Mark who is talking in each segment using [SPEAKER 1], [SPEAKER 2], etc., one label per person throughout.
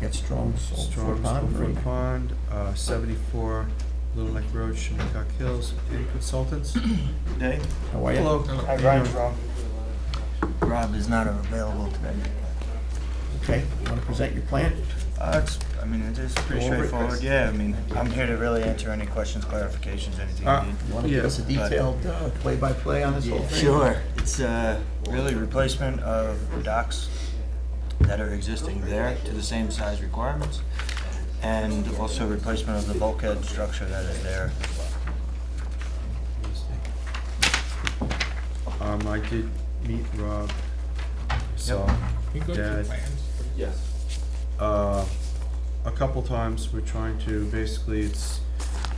[SPEAKER 1] Get strong, sold for
[SPEAKER 2] Strong
[SPEAKER 1] pond
[SPEAKER 2] Foot
[SPEAKER 1] agreement.
[SPEAKER 2] Pond, uh, 74 Little Neck Road, Shinnecock Hills, any consultants?
[SPEAKER 1] Oh,
[SPEAKER 3] Today?
[SPEAKER 1] How are you?
[SPEAKER 2] Hello.
[SPEAKER 4] Hi, Brian Strong.
[SPEAKER 3] Rob is not available today.
[SPEAKER 1] Okay, want to present your plan?
[SPEAKER 3] Uh, it's, I mean, it is pretty
[SPEAKER 1] Go over it,
[SPEAKER 3] straightforward,
[SPEAKER 1] Chris.
[SPEAKER 3] yeah, I mean, I'm here to really answer any questions, clarifications, anything
[SPEAKER 2] Uh,
[SPEAKER 3] you need.
[SPEAKER 1] You want to give
[SPEAKER 2] Yeah.
[SPEAKER 1] us a detailed uh, play-by-play on this whole thing?
[SPEAKER 3] Sure, it's uh, really replacement of docks that are existing there to the same size requirements, and also replacement of the bulkhead structure that is there.
[SPEAKER 2] Um, I did meet Rob, so,
[SPEAKER 4] He go
[SPEAKER 2] Dad.
[SPEAKER 4] through plans?
[SPEAKER 2] uh, a couple times, we're trying to, basically, it's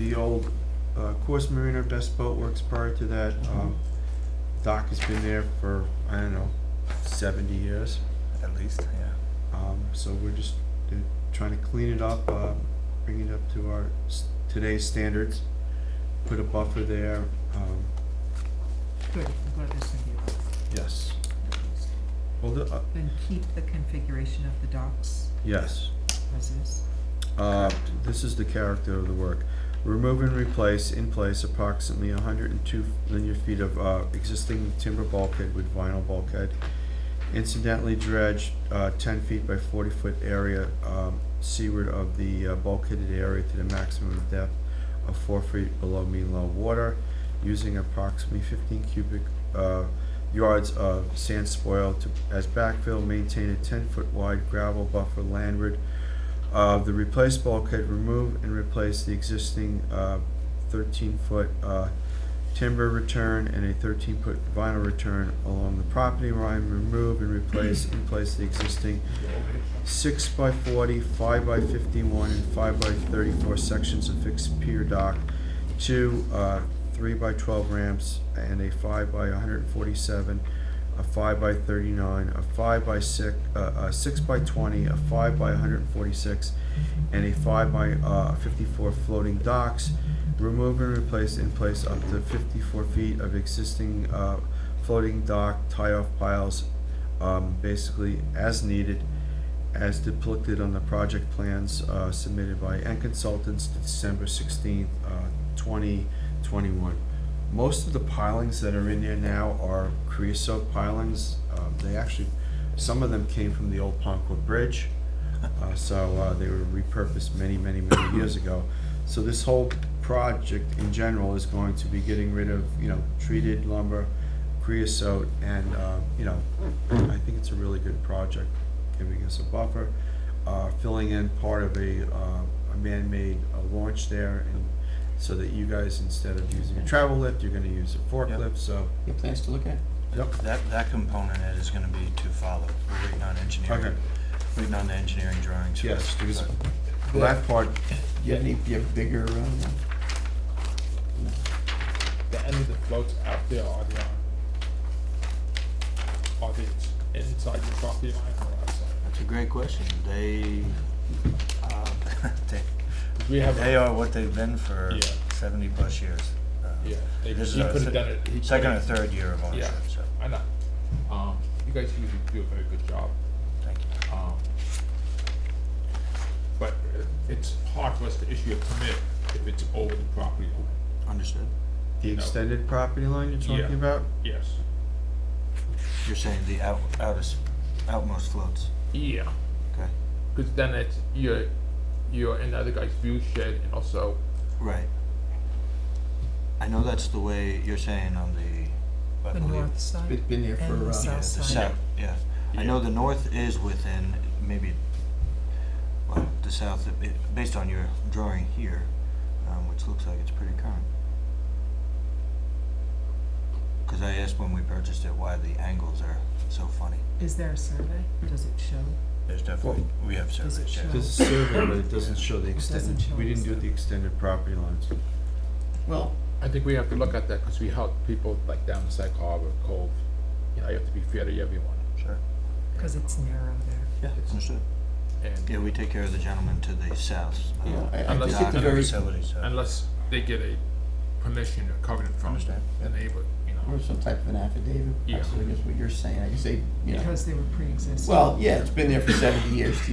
[SPEAKER 2] the old, uh, Course Marina Best Boat Works prior to that,
[SPEAKER 1] Mm-hmm.
[SPEAKER 2] um, dock has been there for, I don't know, seventy years.
[SPEAKER 3] At least, yeah.
[SPEAKER 2] Um, so we're just uh, trying to clean it up, uh, bring it up to our s- today's standards, put a buffer there, um,
[SPEAKER 5] Good, I'm glad there's thinking about it.
[SPEAKER 2] yes. Well, the, uh,
[SPEAKER 5] Then keep the configuration of the docks
[SPEAKER 2] yes,
[SPEAKER 5] as is.
[SPEAKER 2] uh, this is the character of the work. Remove and replace in place approximately hundred and two linear feet of, uh, existing timber bulkhead with vinyl bulkhead. Incidentally dredge, uh, ten feet by forty foot area, um, seaward of the uh, bulkheaded area to the maximum depth of four feet below mean low water, using approximately fifteen cubic, uh, yards of sand spoil to, as backfill, maintain a ten foot wide gravel buffer landward of the replaced bulkhead, remove and replace the existing uh, thirteen-foot uh, timber return and a thirteen-foot vinyl return along the property line, remove and replace in place the existing six by forty, five by fifty-one, and five by thirty-four sections of fixed pier dock, two uh, three by twelve ramps, and a five by one hundred and forty-seven a five by thirty-nine, a five by six, uh, a six by twenty, a five by hundred and forty-six, and a five by, uh, fifty-four floating docks. Remove and replace in place up to fifty-four feet of existing, uh, floating dock tie-off piles, um, basically as needed, as depicted on the project plans, uh, submitted by N Consultants December sixteenth, uh, twenty twenty-one. Most of the pilings that are in there now are creosote pilings. Um, They actually, some of them came from the old Ponquod Bridge, uh, so uh, they were repurposed many, many, many years ago. So this whole project in general is going to be getting rid of, you know, treated lumber, creosote, and, uh, you know, I think it's a really good project, giving us a buffer, uh, filling in part of a uh, a man-made uh, launch there, and so that you guys, instead of using a travel lift, you're gonna use a forklift, so.
[SPEAKER 1] Any plans to look at?
[SPEAKER 2] Yep.
[SPEAKER 3] That, that component it is gonna be to follow, we're waiting on
[SPEAKER 2] Okay.
[SPEAKER 3] engineering, waiting on the engineering drawings. for
[SPEAKER 2] Yes,
[SPEAKER 3] us,
[SPEAKER 2] because
[SPEAKER 3] but-
[SPEAKER 2] for that part,
[SPEAKER 1] Do you have any, do you have bigger, uh, one?
[SPEAKER 4] The end of the floats out there are the, uh, are the inside the property line or outside?
[SPEAKER 3] It's a great question. They, uh, they,
[SPEAKER 4] We have,
[SPEAKER 3] they
[SPEAKER 4] a-
[SPEAKER 3] are what they've been for
[SPEAKER 4] Yeah.
[SPEAKER 3] seventy plus years. Uh,
[SPEAKER 4] yeah, they, he
[SPEAKER 3] This is
[SPEAKER 4] could
[SPEAKER 3] our
[SPEAKER 4] have
[SPEAKER 3] se-
[SPEAKER 4] done it. he could
[SPEAKER 3] Second or
[SPEAKER 4] have-
[SPEAKER 3] third year of ownership,
[SPEAKER 4] Yeah.
[SPEAKER 3] so,
[SPEAKER 4] I know. Um, you guys usually do a very good job.
[SPEAKER 3] thank you.
[SPEAKER 4] Um, but it's hard for us to issue a permit if it's over the property line.
[SPEAKER 3] Understood.
[SPEAKER 2] the extended property line you're talking
[SPEAKER 4] Yeah.
[SPEAKER 2] about?
[SPEAKER 4] Yes.
[SPEAKER 3] You're saying the out, outest, outmost floats,
[SPEAKER 4] Yeah.
[SPEAKER 3] okay?
[SPEAKER 4] Because then it's you're you're in the other guy's view shed and also
[SPEAKER 3] Right. I know that's the way you're saying on the, I
[SPEAKER 5] The
[SPEAKER 3] believe.
[SPEAKER 5] north side.
[SPEAKER 1] Been- been there
[SPEAKER 5] and
[SPEAKER 1] for,
[SPEAKER 5] the
[SPEAKER 1] uh,
[SPEAKER 3] Yeah,
[SPEAKER 5] south
[SPEAKER 3] the
[SPEAKER 5] side.
[SPEAKER 3] south, yeah. I know the north is within, maybe, well, the south, it- it- based on your drawing here, um, which looks like it's pretty current. Because I asked when we purchased it why the angles are so funny.
[SPEAKER 5] Is there a survey? Does it show?
[SPEAKER 3] There's definitely, we have
[SPEAKER 5] Does
[SPEAKER 3] surveys
[SPEAKER 5] it show?
[SPEAKER 3] there.
[SPEAKER 2] There's a survey, but it doesn't show the
[SPEAKER 5] doesn't
[SPEAKER 2] extended,
[SPEAKER 5] show
[SPEAKER 2] we didn't do
[SPEAKER 5] us.
[SPEAKER 2] the extended property lines.
[SPEAKER 1] Well,
[SPEAKER 4] I think we have to look at that because we help people like down Sag Harbor Cove. You know, you have to be fair to everyone.
[SPEAKER 3] Sure.
[SPEAKER 5] Because it's narrow there.
[SPEAKER 3] Yeah, understood.
[SPEAKER 4] And
[SPEAKER 3] Yeah, we take care of the gentleman to the south. uh,
[SPEAKER 1] yeah, I- I
[SPEAKER 4] Unless
[SPEAKER 1] think
[SPEAKER 4] you
[SPEAKER 1] at the
[SPEAKER 4] can-
[SPEAKER 1] very,
[SPEAKER 3] Facility, so.
[SPEAKER 4] unless they get a permission or covenant from
[SPEAKER 3] Understand.
[SPEAKER 4] the neighbor, you know.
[SPEAKER 1] or some type of an affidavit,
[SPEAKER 4] Yeah.
[SPEAKER 1] actually, is what you're saying, I guess they, you know.
[SPEAKER 5] Because they were pre-existing.
[SPEAKER 1] Well, yeah, it's been there for seventy years, to